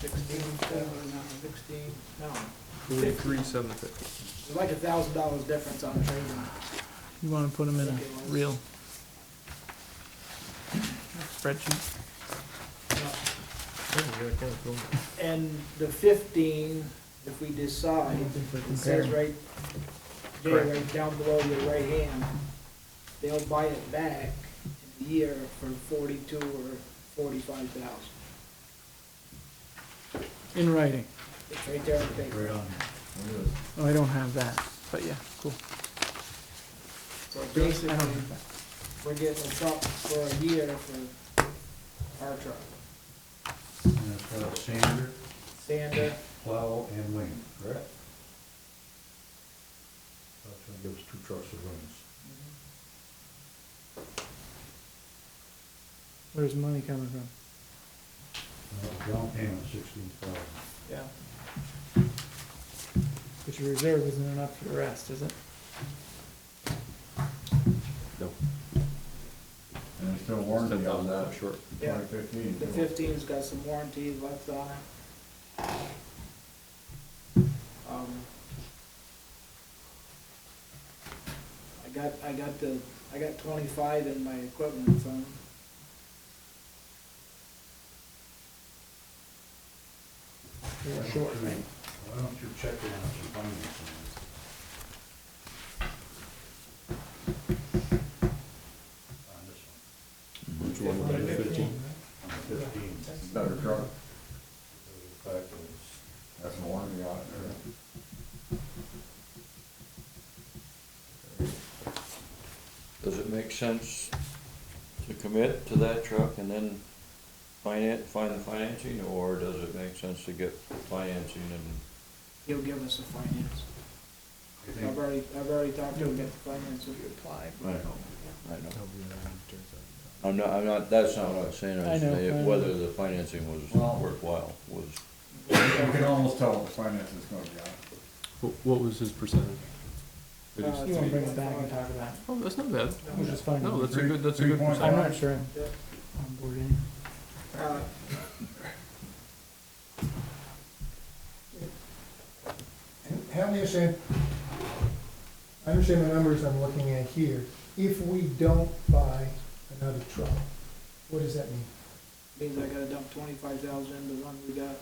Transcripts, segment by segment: sixteen, seven, sixteen, no. Forty-three, seven fifty. It's like a thousand dollars difference on trading. You wanna put them in a real spreadsheet? And the fifteen, if we decide, it says right, Jay, right down below your right hand, they'll buy it back in a year for forty-two or forty-five thousand. In writing. It's right there on the paper. Oh, I don't have that, but yeah, cool. So I don't basically, have that. we're getting a truck for a year for our truck, And it's got a uh, sander, sander, plow, and wing, correct? That's gonna give us two trucks of wings. Where's money coming from? Uh, Down payment sixteen thousand. Yeah. But your reserve isn't enough for the rest, is it? And there's still warranty on that, Short. yeah. twenty fifteen. The fifteen's got some warranty left on it. Um, I got, I got the, I got twenty-five in my equipment, so. You're short, right? Why don't you check it out, your financing? On this Which one would be fifteen? one, on the fifteen. Better truck, The fact is, that's a warranty on it. Does it make sense to commit to that truck and then finance, find the financing, or does it make sense to get financing and? He'll give us the finance. I I've think, already, I've already talked to him about the finance. applied. I know. I know. I'm not, I'm not, that's not what I'm saying, I I'm know, I saying know. whether the financing was Well- worthwhile, was, You can almost tell what the finance is gonna be on it. What was his percentage? Did he Uh, say- You wanna bring it back and talk about it, Oh, that's not bad. which is fine. No, Oh, that's a Three- good, that's a three good point percentage. I'm not sure I'm Yeah. on board anyway. Uh, Help me understand, I understand the numbers I'm looking at here. If we don't buy another truck, what does that mean? Means I gotta dump twenty-five thousand into the one we got.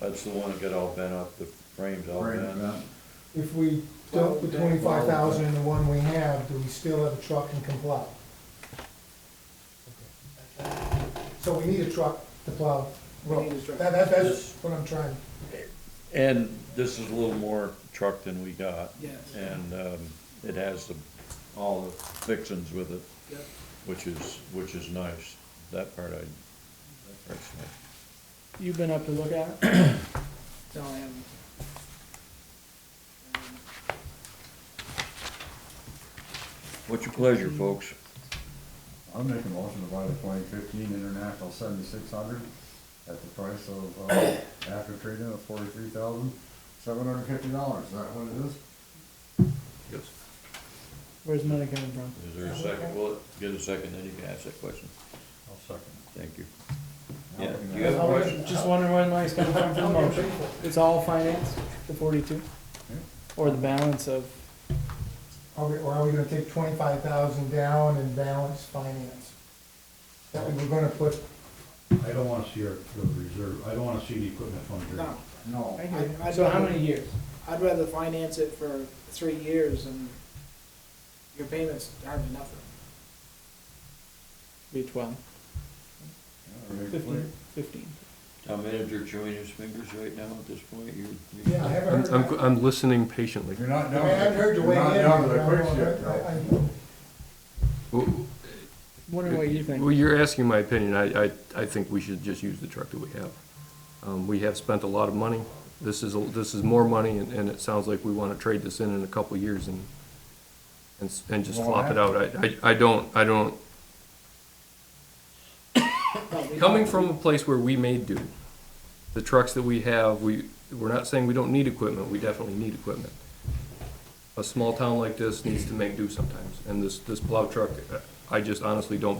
that's the one that got all bent up, the frames all Right, bent. man. If we dump the Well, twenty-five thousand in the one we have, do we still have a truck and can plow? So we need a truck to plow We need roads. a truck. That, that, that's what I'm trying, And this is a little more truck than we got, Yes. and, um, it has the, all the fixings with it. Yep. Which is, which is nice, that part I, that part's nice. You've been up to look at it? No, I haven't. Um, What's your pleasure, folks? I'm making a motion to buy the twenty fifteen International seventy-six hundred at the price of, uh, after trading of forty-three thousand, seven hundred and fifty dollars, is that what it is? Yes. Where's money coming from? Is there a second? Well, get a second, then you can ask that question. I'll second. Thank you. Now Yeah, we can you have a ask- question? Just wondering where the money's coming from for the motion. It's all finance, the forty-two? Yeah. Or the balance of, are we, or are we gonna take twenty-five thousand down and balance finance? That we were gonna put I don't wanna see our, the reserve, I don't wanna see the equipment fund here. No, No, right I- I here, so how don't- many years? I'd rather finance it for three years and your payments hardly nothing. Be twelve, Yeah, very clear. fifteen, fifteen. Town manager chewing his fingers right now at this point, you. you- Yeah, I haven't heard. I'm, I'm, I'm listening patiently. You're not I mean, down. I haven't heard you weigh in. You're not down to the I don't quick know, shit, I- though. I- Well, Wondering what you think. Well, you're asking my opinion. I, I, I think we should just use the truck that we have. Um, we have spent a lot of money. This is, a- this is more money and, and it sounds like we want to trade this in in a couple of years and, and, s- and just Well, flop it out. I, I, I don't, I don't, No, we- coming from a place where we may do, the trucks that we have, we, we're not saying we don't need equipment, we definitely need equipment. A small town like this needs to make do sometimes, and this, this plow truck, I just honestly don't